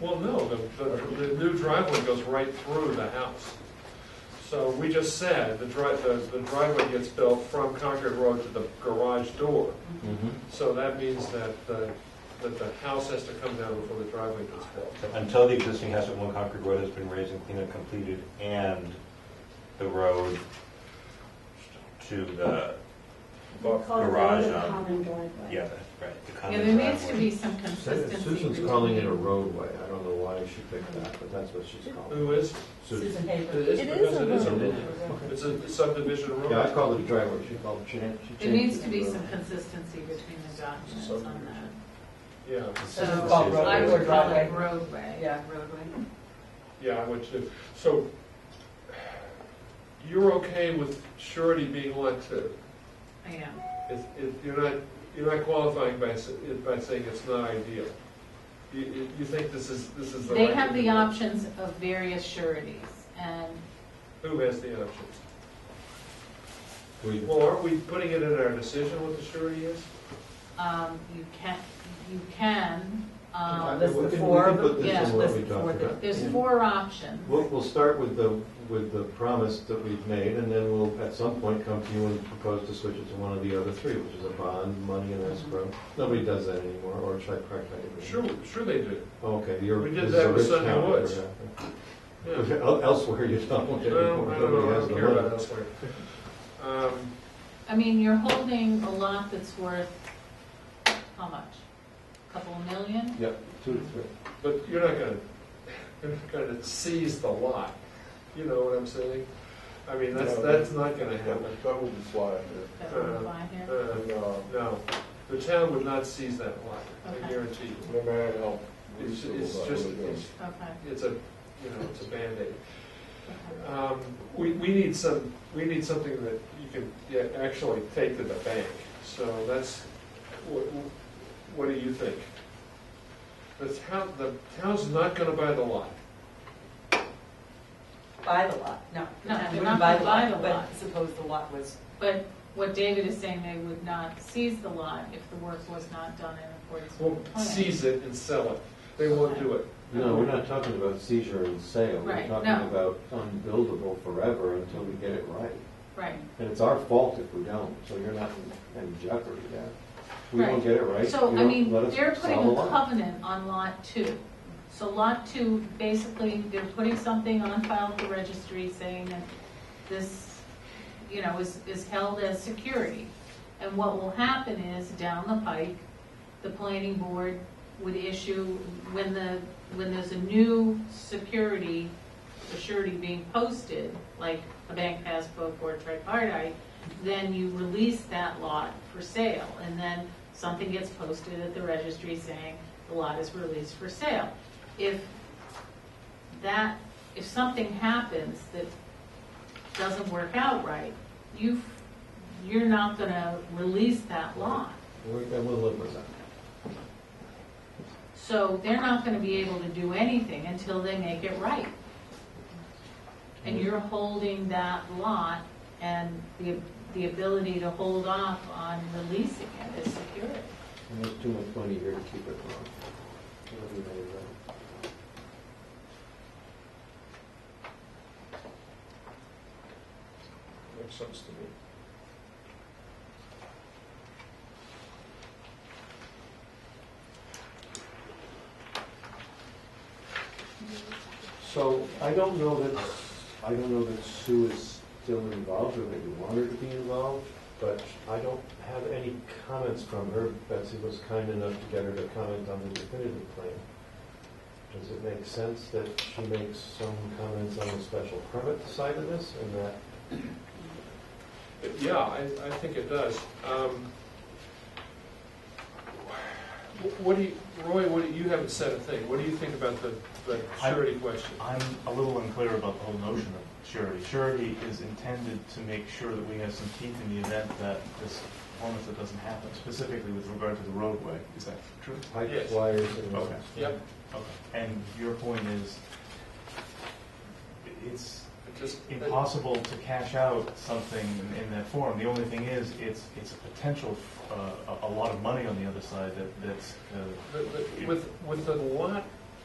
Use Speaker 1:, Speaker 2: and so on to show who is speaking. Speaker 1: Well, no, the, the, the new driveway goes right through the house. So we just said, the dri, the, the driveway gets built from Concord Road to the garage door.
Speaker 2: Mm-hmm.
Speaker 1: So that means that the, that the house has to come down before the driveway gets built.
Speaker 2: Until the existing house at One Concord Road has been raised and cleaned and completed, and the road to the,
Speaker 3: They call it
Speaker 2: Garage,
Speaker 3: a
Speaker 2: um,
Speaker 3: common driveway.
Speaker 2: yeah, that's right, the
Speaker 4: Yeah,
Speaker 2: common
Speaker 4: there needs to
Speaker 2: driveway.
Speaker 4: be some consistency.
Speaker 5: Susan's
Speaker 4: between-
Speaker 5: calling it a roadway. I don't know why she picked that, but that's what she's calling it.
Speaker 1: Who is?
Speaker 5: Susan.
Speaker 1: It is
Speaker 6: It
Speaker 1: because it is
Speaker 6: is
Speaker 1: a
Speaker 6: a
Speaker 1: road.
Speaker 6: road.
Speaker 1: It's a subdivision road.
Speaker 5: Yeah, I called it a driveway. She called it, she didn't. she
Speaker 4: There
Speaker 5: changed
Speaker 4: needs
Speaker 5: it
Speaker 4: to be
Speaker 5: a
Speaker 4: some
Speaker 5: road.
Speaker 4: consistency between the documents on that.
Speaker 1: Yeah,
Speaker 4: So
Speaker 2: Consistency is
Speaker 6: called
Speaker 2: the
Speaker 4: I
Speaker 2: word.
Speaker 6: road.
Speaker 4: would call it
Speaker 6: Driveway.
Speaker 4: roadway,
Speaker 6: Yeah.
Speaker 4: roadway.
Speaker 1: yeah, I would too. So you're okay with surety being lot two?
Speaker 4: I am.
Speaker 1: If, if you're not, you're not qualifying by, s- by saying it's not ideal. You, you- you think this is, this is the right?
Speaker 4: They have
Speaker 1: thing
Speaker 4: the
Speaker 1: to do.
Speaker 4: options of various sureties, and
Speaker 1: Who has the options?
Speaker 5: We-
Speaker 1: Well, aren't we putting it in our decision what the surety is?
Speaker 4: um, you can, you can, um,
Speaker 5: We
Speaker 6: List
Speaker 5: can-
Speaker 6: the
Speaker 5: we
Speaker 6: four
Speaker 5: can
Speaker 6: of
Speaker 5: put
Speaker 6: them.
Speaker 5: this
Speaker 4: yeah,
Speaker 5: in what
Speaker 6: list
Speaker 5: we talked
Speaker 6: four that-
Speaker 5: about.
Speaker 4: there's four options.
Speaker 5: We'll, we'll start with the, with the promise that we've made, and then we'll, at some point, come to you and propose to switch it to one of the other three, which is a bond, money, and escrow. Nobody does that anymore, or should I correct that? again?
Speaker 1: Sure, sure they do.
Speaker 5: Okay, you're.
Speaker 1: We did
Speaker 5: this is
Speaker 1: that
Speaker 5: a
Speaker 1: with
Speaker 5: rich
Speaker 1: Sunday
Speaker 5: town,
Speaker 1: Woods.
Speaker 5: yeah.
Speaker 1: Yeah.
Speaker 5: El- Elsewhere, you don't.
Speaker 1: Well, I don't I don't
Speaker 5: Nobody
Speaker 1: know, I
Speaker 5: has
Speaker 1: don't
Speaker 5: the
Speaker 1: care
Speaker 5: money.
Speaker 1: about elsewhere. Um,
Speaker 4: I mean, you're holding a lot that's worth, how much? Couple million?
Speaker 5: Yep, two to three.
Speaker 1: But you're not gonna, you're not gonna seize the lot, you know what I'm saying? I mean, that's,
Speaker 7: No.
Speaker 1: that's not gonna happen.
Speaker 7: That would be fly under.
Speaker 4: that would apply here?
Speaker 1: Uh,
Speaker 7: No,
Speaker 1: No, the town would not seize that lot, I
Speaker 4: Okay.
Speaker 1: guarantee you.
Speaker 7: no matter how
Speaker 1: It's,
Speaker 7: reasonable
Speaker 1: it's
Speaker 7: that
Speaker 1: just,
Speaker 7: would be.
Speaker 1: it's,
Speaker 4: Okay,
Speaker 1: it's a, you know, it's a Band-Aid.
Speaker 4: okay.
Speaker 1: Um, We, we need some, we need something that you can yeah, actually take to the bank, so that's, what, what do you think? The town, the town's not gonna buy the lot.
Speaker 6: Buy the lot, no. the
Speaker 4: No,
Speaker 6: town
Speaker 4: they're
Speaker 6: wouldn't
Speaker 4: not gonna buy the lot.
Speaker 6: But suppose the lot was,
Speaker 4: But what David is saying, they would not seize the lot if the work was not done in accordance
Speaker 1: Well,
Speaker 4: with the plan.
Speaker 1: seize it and sell it. They won't do it.
Speaker 5: No, we're not talking about seizure and sale. We're
Speaker 4: Right,
Speaker 5: talking
Speaker 4: no.
Speaker 5: about unbuildable forever until we get it right.
Speaker 4: Right.
Speaker 5: And it's our fault if we don't, so you're not in- in jeopardy there. We don't
Speaker 4: Right.
Speaker 5: get it right.
Speaker 4: So,
Speaker 5: you
Speaker 4: I
Speaker 5: don't
Speaker 4: mean,
Speaker 5: let us
Speaker 4: they're putting
Speaker 5: sell the
Speaker 4: a
Speaker 5: lot.
Speaker 4: covenant on lot two. So lot two, basically, they're putting something on file at the registry saying that this, you know, is, is held as security. And what will happen is, down the pike, the planning board would issue, when the, when there's a new security, a surety being posted, like a bank passbook or a tripartite, then you release that lot for sale, and then something gets posted at the registry saying the lot is released for sale. If that, if something happens that doesn't work out right, you, you're not gonna release that lot.
Speaker 5: We're- And we'll live with that.
Speaker 4: So they're not gonna be able to do anything until they make it right. And you're holding that lot and the, the ability to hold off on releasing it as security.
Speaker 5: And there's too much money here to keep it wrong. Everybody right.
Speaker 7: Makes sense to me.
Speaker 5: So I don't know that, I don't know that Sue is still involved or that you want her to be involved, but I don't have any comments from her. Betsy was kind enough to get her to comment on the definitive plan. Does it make sense that she makes some comments on the special permit side of this and that
Speaker 1: Yeah, I, I think it does. Um, What do you, Roy, what, do you you haven't said a thing. What do you think about the, the
Speaker 8: I-
Speaker 1: surety question?
Speaker 8: I'm a little unclear about the whole notion of surety. Surety is intended to make sure that we have some teeth in the event that this performance that doesn't happen, specifically with regard to the roadway. Is that true?
Speaker 5: pipe
Speaker 1: Yes.
Speaker 5: wires and?
Speaker 8: Okay.
Speaker 1: Yep,
Speaker 8: Okay. And your point is, it's
Speaker 1: it just. uh,
Speaker 8: impossible to cash out something in, in that form. The only thing is, it's, it's a potential, uh, a, a lot of money on the other side that, that's, uh,
Speaker 1: But- but With, with the lot